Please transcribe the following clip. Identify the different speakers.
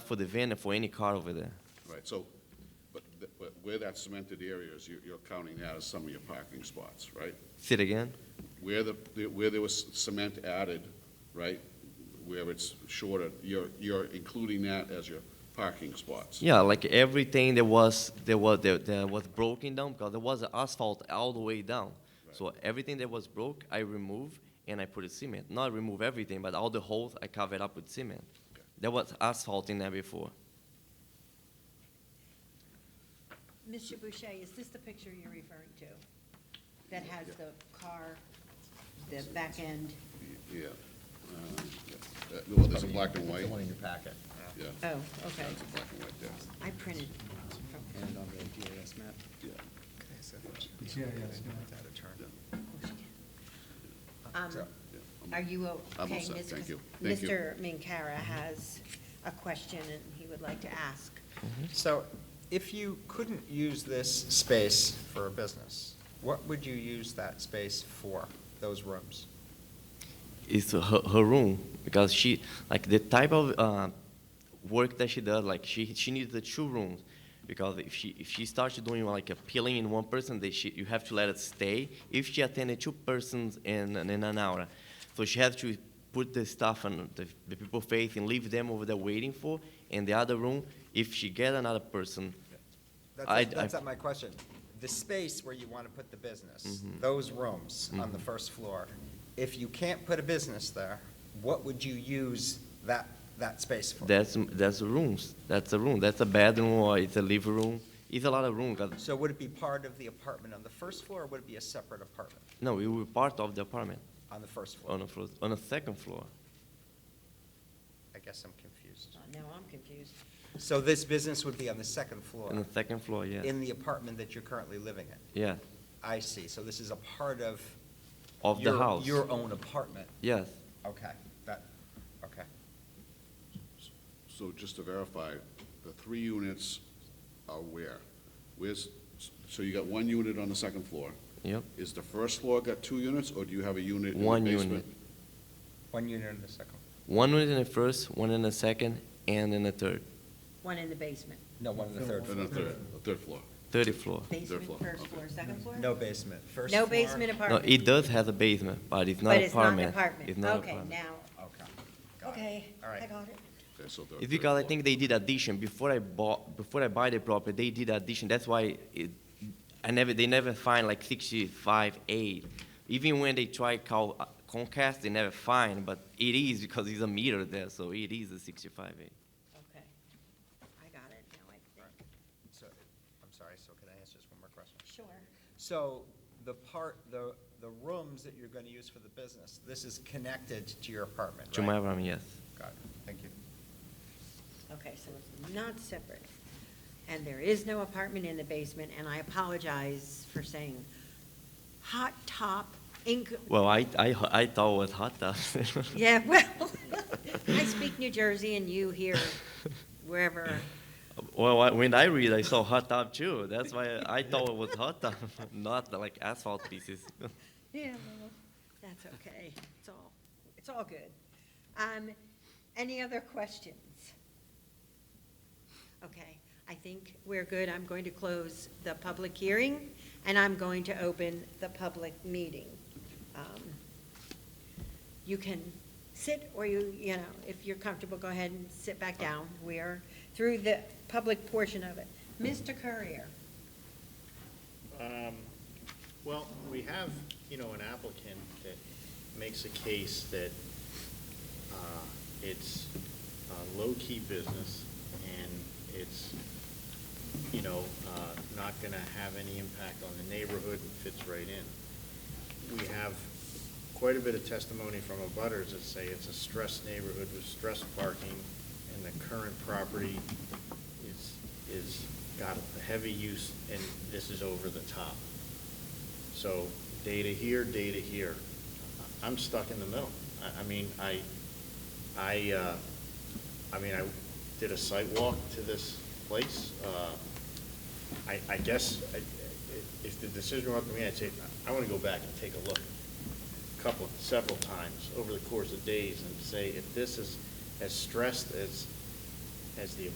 Speaker 1: for the van and for any car over there.
Speaker 2: Right, so, but, th- but where that cemented area is, you- you're counting that as some of your parking spots, right?
Speaker 1: Say it again?
Speaker 2: Where the, the- where there was cement added, right, where it's shorter, you're, you're including that as your parking spots?
Speaker 1: Yeah, like everything that was that was that, that was broken down because there was asphalt all the way down. So everything that was broke, I remove and I put a cement. Not remove everything, but all the holes I covered up with cement. There was asphalt in there before.
Speaker 3: Mr. Boucher, is this the picture you're referring to? That has the car, the back end?
Speaker 2: Yeah. Uh, yeah. Uh, Well, there's a black and white,
Speaker 4: The one in your packet.
Speaker 2: yeah, yeah,
Speaker 3: Oh, okay.
Speaker 2: there's a black and white there.
Speaker 3: I printed.
Speaker 4: And on the GIS map.
Speaker 5: Yeah, yeah, it's not-
Speaker 3: Um,
Speaker 4: So,
Speaker 2: Yeah, I'm-
Speaker 3: Are you
Speaker 2: all
Speaker 3: okay?
Speaker 2: set,
Speaker 3: Ms.
Speaker 2: thank
Speaker 3: Cas-
Speaker 2: you. Thank you.
Speaker 3: Mr. Minkara has a question and he would like to ask.
Speaker 4: So if you couldn't use this space for a business, what would you use that space for, those rooms?
Speaker 1: It's her, her room because she like the type of uh, work that she does. Like she she needs the two rooms because if she if she starts doing like a peeling in one person, they she, you have to let it stay. If she attended two persons in in an hour, so she has to put the stuff and the, the people face and leave them over there waiting for. And the other room, if she get another person,
Speaker 4: That's,
Speaker 1: I'd-
Speaker 4: that's
Speaker 1: I-
Speaker 4: not my question. The space where you want to put the business, those rooms on the first floor, if you can't put a business there, what would you use that, that space for?
Speaker 1: that's that's rooms. That's a room. That's a bedroom or it's a living room. It's a lot of room. 'cause-
Speaker 4: So would it be part of the apartment on the first floor, or would it be a separate apartment
Speaker 1: No, it will be part of the apartment.
Speaker 4: on the first floor?
Speaker 1: on a floor, on a second floor.
Speaker 4: I guess I'm confused.
Speaker 3: Oh, Now I'm confused.
Speaker 4: So this business would be on the second floor,
Speaker 1: On the second floor, yeah.
Speaker 4: in the apartment that you're currently living in?
Speaker 1: yeah,
Speaker 4: I see, so this is a part of.
Speaker 1: of the
Speaker 4: your-
Speaker 1: house.
Speaker 4: Your own apartment,
Speaker 1: yes,
Speaker 4: okay, that, okay.
Speaker 2: So just to verify, the three units are where? Where's, so you got one unit on the second floor.
Speaker 1: yep.
Speaker 2: Is the first floor got two units, or do you have a unit in the
Speaker 1: One
Speaker 2: basement?
Speaker 1: unit.
Speaker 4: One unit in the second,
Speaker 1: One in the first, one in the second, and in the third,
Speaker 3: One in the basement.
Speaker 4: no, one in the third
Speaker 2: And
Speaker 4: floor.
Speaker 2: a third, a third floor.
Speaker 1: third floor.
Speaker 3: Basement,
Speaker 2: floor,
Speaker 3: first
Speaker 2: okay.
Speaker 3: floor, second floor?
Speaker 4: No basement, first floor.
Speaker 3: No basement
Speaker 1: No,
Speaker 3: apartment?
Speaker 1: it does have a basement, but it's not
Speaker 3: But it's not an
Speaker 1: apartment.
Speaker 3: apartment.
Speaker 1: It's not
Speaker 3: Okay,
Speaker 1: apartment.
Speaker 3: now,
Speaker 4: Okay. got it.
Speaker 3: okay,
Speaker 4: All
Speaker 3: I
Speaker 4: right.
Speaker 3: got it.
Speaker 2: Okay, so the
Speaker 1: It's
Speaker 2: third
Speaker 1: because I
Speaker 2: floor.
Speaker 1: think they did addition before I bought, before I buy the property, they did addition. That's why it, I never, they never find like sixty-five eight. Even when they try call uh, Comcast, they never find, but it is because it's a meter there, so it is a sixty-five eight.
Speaker 3: Okay. I got it now, I think.
Speaker 4: So, I'm sorry, so can I ask just one more question?
Speaker 3: Sure.
Speaker 4: So the part, the, the rooms that you're going to use for the business, this is connected to your apartment, right?
Speaker 1: To my apartment, yes.
Speaker 4: Got it, thank you.
Speaker 3: Okay, so it's not separate. And there is no apartment in the basement, and I apologize for saying hot top inc,
Speaker 1: Well, I, I, I thought it was hot tub.
Speaker 3: yeah, well, I speak New Jersey and you here wherever.
Speaker 1: Well, I, when I read, I saw hot tub too. That's why I thought it was hot tub, not like asphalt pieces.
Speaker 3: Yeah, well, that's okay. It's all, it's all good. Um, any other questions? Okay, I think we're good. I'm going to close the public hearing, and I'm going to open the public meeting. Um, You can sit, or you, you know, if you're comfortable, go ahead and sit back down. We are through the public portion of it. Mr. Courier?
Speaker 6: Um, Well, we have, you know, an applicant that makes a case that uh, it's a low-key business and it's, you know, uh, not going to have any impact on the neighborhood and fits right in. We have quite a bit of testimony from abutters that say it's a stressed neighborhood with stressed parking and the current property is, is got a heavy use and this is over the top. So data here, data here. I'm stuck in the middle. I, I mean, I, I, uh, I mean, I did a site walk to this place. Uh, I, I guess, I- I- if the decision were up to me, I'd say, I want to go back and take a look a couple, several times over the course of days and say, if this is as stressed as as the